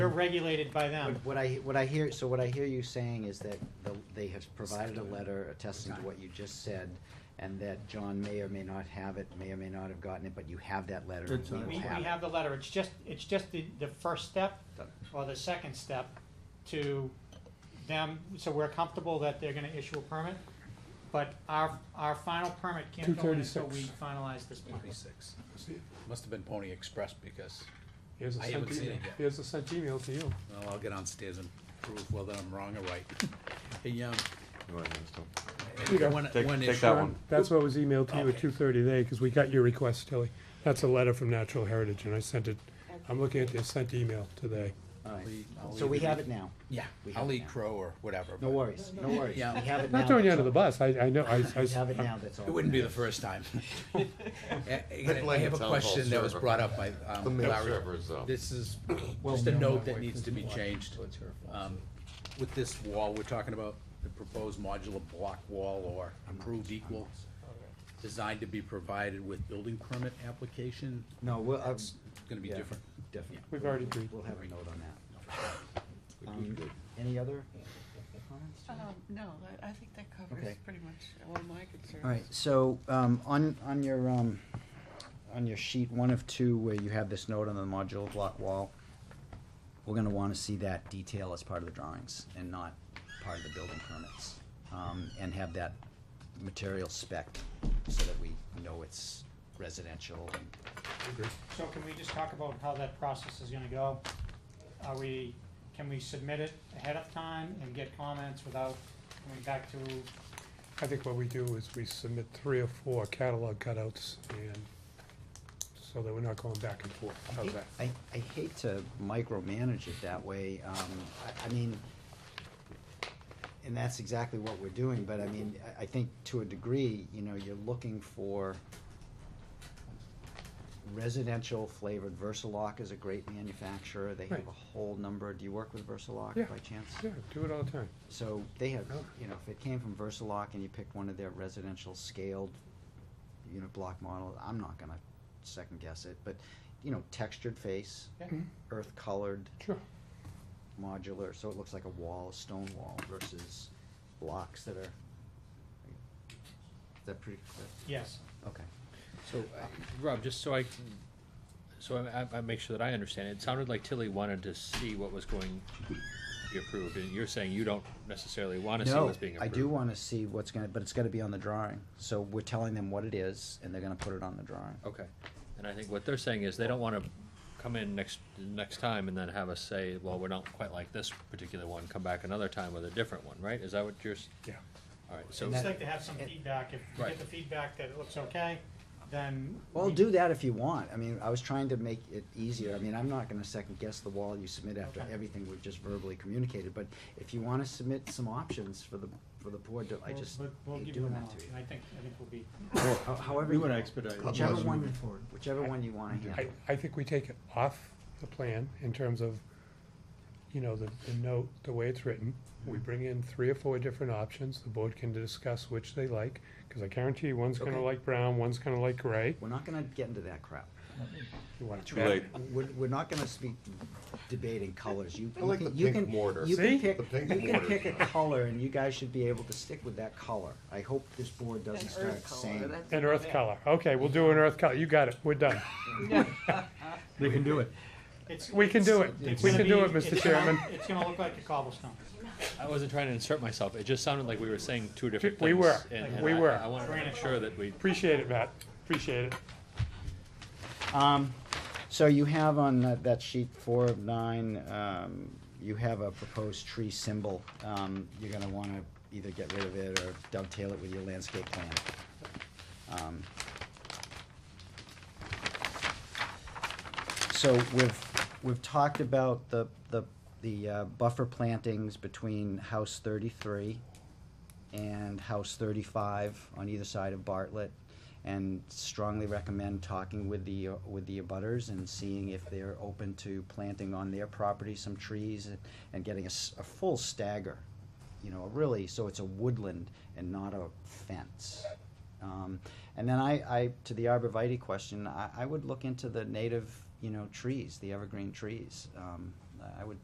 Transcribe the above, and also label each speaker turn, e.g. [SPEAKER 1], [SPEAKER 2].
[SPEAKER 1] They're regulated by them.
[SPEAKER 2] Um, What I, what I hear, so what I hear you saying is that the- they have provided a letter attesting to what you just said, and that John may or may not have it, may or may not have gotten it, but you have that letter. and
[SPEAKER 3] It's
[SPEAKER 2] we
[SPEAKER 3] not-
[SPEAKER 2] will
[SPEAKER 1] We, we
[SPEAKER 2] it.
[SPEAKER 1] have the letter, it's just, it's just the, the first step or the second step to them, so we're comfortable that they're gonna issue a permit, but our, our final permit can't go in until we
[SPEAKER 3] 236.
[SPEAKER 1] finalize this plan.
[SPEAKER 4] Twenty-six. Must have been Pony Express because,
[SPEAKER 3] Here's a
[SPEAKER 4] I
[SPEAKER 3] sent
[SPEAKER 4] haven't seen
[SPEAKER 3] email,
[SPEAKER 4] it yet.
[SPEAKER 3] here's a sent email to you.
[SPEAKER 4] well, I'll get on stairs and prove whether I'm wrong or right. Hey, um,
[SPEAKER 3] You go.
[SPEAKER 4] one,
[SPEAKER 5] Take-
[SPEAKER 4] one
[SPEAKER 5] take
[SPEAKER 4] issue.
[SPEAKER 5] that one.
[SPEAKER 3] That's what was emailed to you at
[SPEAKER 4] Okay.
[SPEAKER 3] two thirty today, because we got your request, Tilly. That's a letter from Natural Heritage, and I sent it, I'm looking at the sent email today.
[SPEAKER 2] All right.
[SPEAKER 4] We- I'll
[SPEAKER 2] So we
[SPEAKER 4] either-
[SPEAKER 2] have it now.
[SPEAKER 4] Yeah,
[SPEAKER 2] We have
[SPEAKER 4] I'll
[SPEAKER 2] it
[SPEAKER 4] eat
[SPEAKER 2] now.
[SPEAKER 4] crow or whatever.
[SPEAKER 2] No
[SPEAKER 4] but
[SPEAKER 2] worries, no worries. We
[SPEAKER 4] Yeah.
[SPEAKER 2] have it now.
[SPEAKER 3] Not throwing you
[SPEAKER 2] that's
[SPEAKER 3] under the
[SPEAKER 2] all.
[SPEAKER 3] bus, I, I know, I, I.
[SPEAKER 2] We have it now, that's all.
[SPEAKER 4] It wouldn't be the
[SPEAKER 2] matters.
[SPEAKER 4] first time. I- I
[SPEAKER 5] blame
[SPEAKER 4] have
[SPEAKER 5] the
[SPEAKER 4] a
[SPEAKER 5] town hall
[SPEAKER 4] question that was
[SPEAKER 5] server.
[SPEAKER 4] brought up by,
[SPEAKER 5] The
[SPEAKER 4] um,
[SPEAKER 5] mail
[SPEAKER 4] Larry.
[SPEAKER 5] servers, though.
[SPEAKER 4] This is just a note that needs to be changed. Um, With this wall we're talking about, the proposed modular block wall or improved equal, designed to be provided with building permit application,
[SPEAKER 2] No, we'll, uh,
[SPEAKER 4] that's gonna be
[SPEAKER 2] yeah.
[SPEAKER 4] different.
[SPEAKER 2] definitely.
[SPEAKER 3] We've already agreed.
[SPEAKER 2] We'll have a note on that. Um, Any other comments?
[SPEAKER 6] Um, no, I, I think that
[SPEAKER 2] Okay.
[SPEAKER 6] covers pretty much all my concerns.
[SPEAKER 2] All right, so, um, on, on your, um, on your sheet, one of two, where you have this note on the modular block wall, we're gonna wanna see that detail as part of the drawings and not part of the building permits. Um, and have that material spec so that we know it's residential and
[SPEAKER 1] So can we just talk about how that process is gonna go? Are we, can we submit it ahead of time and get comments without coming back to,
[SPEAKER 3] I think what we do is we submit three or four catalog cutouts and, so that we're not going back and forth. How's that?
[SPEAKER 2] I, I hate to micromanage it that way, um, I, I mean, and that's exactly what we're doing, but I mean, I, I think to a degree, you know, you're looking for residential flavored, Versalock is a great manufacturer, they have
[SPEAKER 3] Right.
[SPEAKER 2] a whole number, do you work with Versalock
[SPEAKER 3] Yeah.
[SPEAKER 2] by chance?
[SPEAKER 3] Yeah, do it all the time.
[SPEAKER 2] So they have,
[SPEAKER 3] Oh.
[SPEAKER 2] you know, if it came from Versalock and you picked one of their residential scaled, you know, block model, I'm not gonna second guess it, but, you know, textured face,
[SPEAKER 1] yeah,
[SPEAKER 2] earth colored,
[SPEAKER 3] Sure.
[SPEAKER 2] modular, so it looks like a wall, a stone wall versus blocks that are. Is that pretty clear?
[SPEAKER 1] yes.
[SPEAKER 2] Okay.
[SPEAKER 7] So, uh, Rob, just so I, can- so I, I- I make sure that I understand, it sounded like Tilly wanted to see what was going to be approved, and you're saying you don't necessarily wanna see
[SPEAKER 2] No,
[SPEAKER 7] what's being
[SPEAKER 2] I
[SPEAKER 7] approved.
[SPEAKER 2] do wanna see what's gonna, but it's gotta be on the drawing, so we're telling them what it is and they're gonna put it on the drawing.
[SPEAKER 7] Okay, and I think what they're saying is they don't wanna come in next, next time and then have us say, well, we're not quite like this particular one, come back another time with a different one, right? Is that what you're, s-
[SPEAKER 3] Yeah.
[SPEAKER 7] all right, so,
[SPEAKER 1] So
[SPEAKER 2] And
[SPEAKER 1] just
[SPEAKER 2] that-
[SPEAKER 1] like to have some
[SPEAKER 2] it-
[SPEAKER 1] feedback, if we
[SPEAKER 7] Right.
[SPEAKER 1] get the feedback that it looks okay, then.
[SPEAKER 2] Well,
[SPEAKER 1] we-
[SPEAKER 2] do that if you want. I mean, I was trying to make it easier. I mean, I'm not gonna second guess the wall you submit after
[SPEAKER 1] Okay.
[SPEAKER 2] everything we've just verbally communicated, but if you wanna submit some options for the, for the board, to- I
[SPEAKER 1] We'll-
[SPEAKER 2] just
[SPEAKER 1] we'll- we'll
[SPEAKER 2] hate
[SPEAKER 1] give you
[SPEAKER 2] doing
[SPEAKER 1] an
[SPEAKER 2] that to
[SPEAKER 1] option.
[SPEAKER 2] you.
[SPEAKER 1] I think, I think we'll be,
[SPEAKER 2] How- However.
[SPEAKER 8] We
[SPEAKER 2] you
[SPEAKER 8] wanna
[SPEAKER 2] know.
[SPEAKER 8] expedite it.
[SPEAKER 2] Whichever
[SPEAKER 8] Otherwise,
[SPEAKER 2] one,
[SPEAKER 8] moving forward.
[SPEAKER 2] whichever one you wanna handle.
[SPEAKER 3] I, I think we take it off the plan in terms of, you know, the, the note, the way it's written. We bring in three or four different options, the board can discuss which they like, cause I guarantee you, one's gonna
[SPEAKER 2] Okay.
[SPEAKER 3] like brown, one's gonna like gray.
[SPEAKER 2] We're not gonna get into that crap.
[SPEAKER 3] You want
[SPEAKER 5] Too late.
[SPEAKER 2] We're, we're not gonna speak debating colors. You,
[SPEAKER 5] I
[SPEAKER 2] you
[SPEAKER 5] like
[SPEAKER 2] can,
[SPEAKER 5] the
[SPEAKER 2] you
[SPEAKER 5] pink
[SPEAKER 2] can,
[SPEAKER 5] mortar.
[SPEAKER 2] you can
[SPEAKER 3] See?
[SPEAKER 2] pick,
[SPEAKER 5] The pink
[SPEAKER 2] you can
[SPEAKER 5] mortar.
[SPEAKER 2] pick a color and you guys should be able to stick with that color. I hope this board
[SPEAKER 6] An
[SPEAKER 2] doesn't start
[SPEAKER 6] earth color,
[SPEAKER 2] saying.
[SPEAKER 6] that's.
[SPEAKER 3] An earth color, okay, we'll do an earth color, you got it, we're done.
[SPEAKER 8] They can do it.
[SPEAKER 1] it's.
[SPEAKER 3] We can do it.
[SPEAKER 1] it's
[SPEAKER 3] We
[SPEAKER 1] gonna
[SPEAKER 3] can do
[SPEAKER 1] be-
[SPEAKER 3] it, Mr.
[SPEAKER 1] it's gonna-
[SPEAKER 3] Chairman.
[SPEAKER 1] It's gonna look like a cobblestone.
[SPEAKER 7] I wasn't trying to insert myself, it just sounded like we were saying two different things.
[SPEAKER 3] We were.
[SPEAKER 7] and- and
[SPEAKER 3] We
[SPEAKER 7] I-
[SPEAKER 3] were.
[SPEAKER 7] I wanted to make sure that we
[SPEAKER 3] Appreciate it, Matt, appreciate it.
[SPEAKER 2] Um, so you have on that, that sheet four of nine, um, you have a proposed tree symbol. Um, you're gonna wanna either get rid of it or dovetail it with your landscape plan. Um, So we've, we've talked about the, the, the uh, buffer plantings between house thirty-three and house thirty-five on either side of Bartlett. And strongly recommend talking with the, uh, with the abutters and seeing if they're open to planting on their property some trees and- and getting a, s- a full stagger. You know, really, so it's a woodland and not a fence. Um, and then I, I, to the arborvitae question, I, I would look into the native, you know, trees, the evergreen trees. Um, I would